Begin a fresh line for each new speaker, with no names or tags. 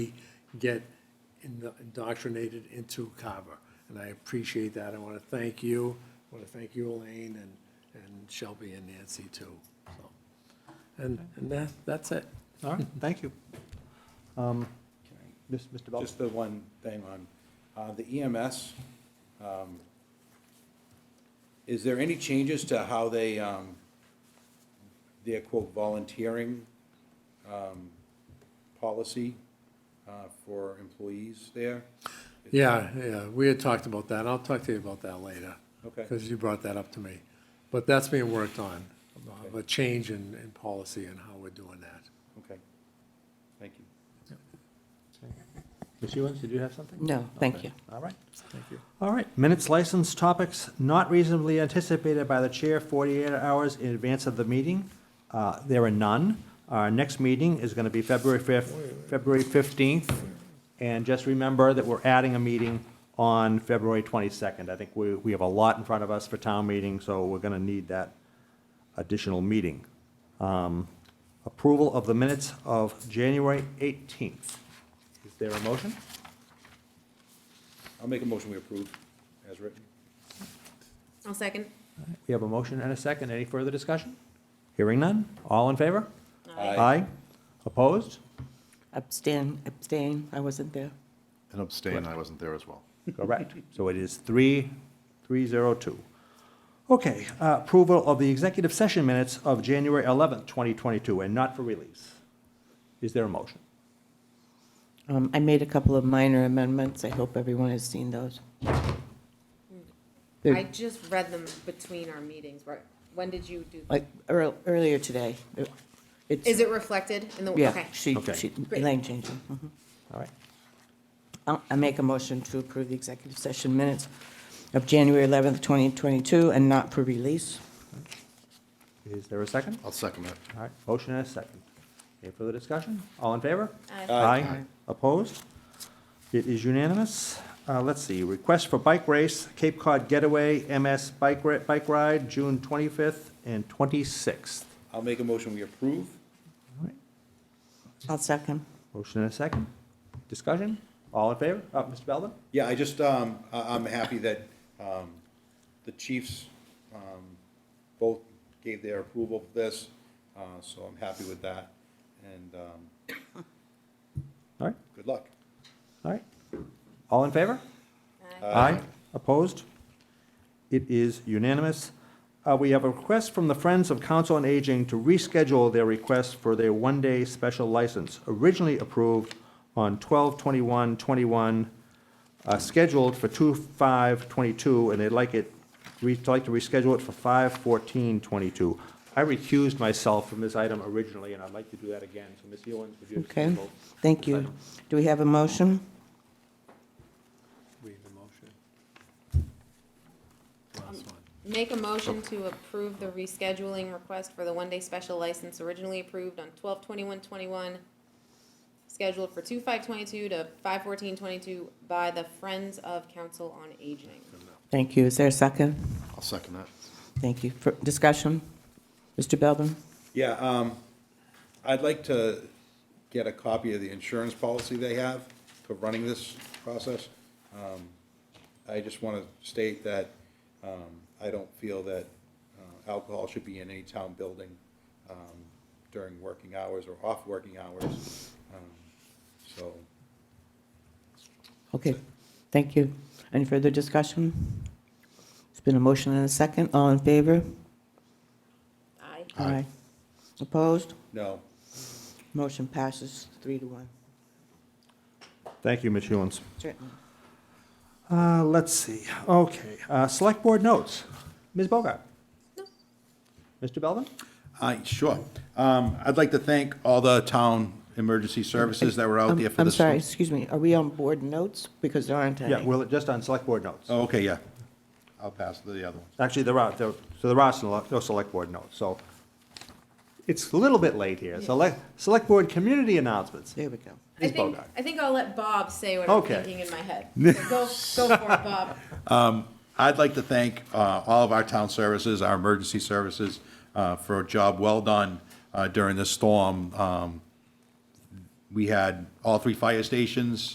get indo- indoctrinated into Carver. And I appreciate that. I want to thank you. I want to thank you, Elaine, and, and Shelby and Nancy too. So, And, and that, that's it.
All right, thank you. Um, Miss- Mr. Belvin?
Just the one thing on, uh, the EMS, um, is there any changes to how they, um, their quote volunteering, um, policy, uh, for employees there?
Yeah, yeah, we had talked about that. I'll talk to you about that later.
Okay.
Because you brought that up to me. But that's being worked on, of a change in, in policy and how we're doing that.
Okay, thank you.
Ms. Ewens, did you have something?
No, thank you.
All right.
Thank you.
All right, minutes, license, topics not reasonably anticipated by the chair 48 hours in advance of the meeting. Uh, There are none. Our next meeting is going to be February 5th, February 15th. And just remember that we're adding a meeting on February 22nd. I think we, we have a lot in front of us for town meeting, so we're going to need that additional meeting. Um, Approval of the minutes of January 18th. Is there a motion?
I'll make a motion we approve as written.
I'll second.
We have a motion and a second. Any further discussion? Hearing none. All in favor?
Aye.
Opposed?
Abstain, abstain, I wasn't there.
And abstain, I wasn't there as well.
Correct. So it is three, three zero two. Okay, uh, approval of the executive session minutes of January eleventh, twenty twenty-two, and not for release. Is there a motion?
Um, I made a couple of minor amendments, I hope everyone has seen those. They're-
I just read them between our meetings, right? When did you do?
Like, earl- earlier today. It's-
Is it reflected in the,
Yeah,
okay.
she,
Okay.
she, Elaine changed them. Mhm.
All right.
I'll- I make a motion to approve the executive session minutes of January 11th, 2022, and not for release.
Is there a second?
I'll second that.
All right, motion and a second. Any further discussion? All in favor?
Aye.
Aye. Opposed? It is unanimous. Uh, let's see, request for bike race, Cape Cod Getaway, MS Bike Ri- Bike Ride, June twenty-fifth and twenty-sixth.
I'll make a motion we approve.
I'll second.
Motion and a second. Discussion? All in favor? Uh, Mr. Belvin?
Yeah, I just, um, I, I'm happy that, um, the chiefs, um, both gave their approval for this, uh, so I'm happy with that, and, um,
All right,
good luck.
all right. All in favor? Aye. Opposed? It is unanimous. Uh, We have a request from the Friends of Council on Aging to reschedule their request for their one-day special license, originally approved on 12/21/21, uh, scheduled for 2/5/22, and they'd like it, we'd like to reschedule it for 5/14/22. I recused myself from this item originally, and I'd like to do that again. So Ms. Ewens, would you?
Okay,
reschedule
thank
this
you.
item?
Do we have a motion?
Read the motion. Last one.
Make a motion to approve the rescheduling request for the one-day special license originally approved on twelve twenty-one twenty-one, scheduled for two five twenty-two to five fourteen twenty-two by the Friends of Council on Aging.
Thank you. Is there a second?
I'll second that.
Thank you. For- Discussion? Mr. Belvin?
Yeah, um, I'd like to get a copy of the insurance policy they have for running this process. Um, I just want to state that, um, I don't feel that, uh, alcohol should be in any town building, um, during working hours or off working hours. Um, So,
Okay, thank you. Any further discussion? It's been a motion and a second. All in favor?
Aye.
Aye. Opposed?
no,
Motion passes three to one.
Thank you, Ms. Hewens.
Certainly.
Uh, let's see, okay, uh, select board notes. Ms. Bogart? Mr. Belvin?
Uh, sure. Um, I'd like to thank all the town emergency services that were out there
I'm
for the.
I'm sorry, excuse me, are we on board notes? Because there aren't any.
Yeah, well, just on select board notes.
Oh, okay, yeah. I'll pass the other one.
Actually, there are, there- so there are some, no select board notes, so it's a little bit late here. Select, select board community announcements.
There we go.
I
Ms.
think,
Bogart?
I think I'll let Bob say what I'm
Okay.
thinking in my head. So Go, go for it, Bob.
I'd like to thank uh, all of our town services, our emergency services, uh, for a job well done uh, during this storm. Um, we had all three fire stations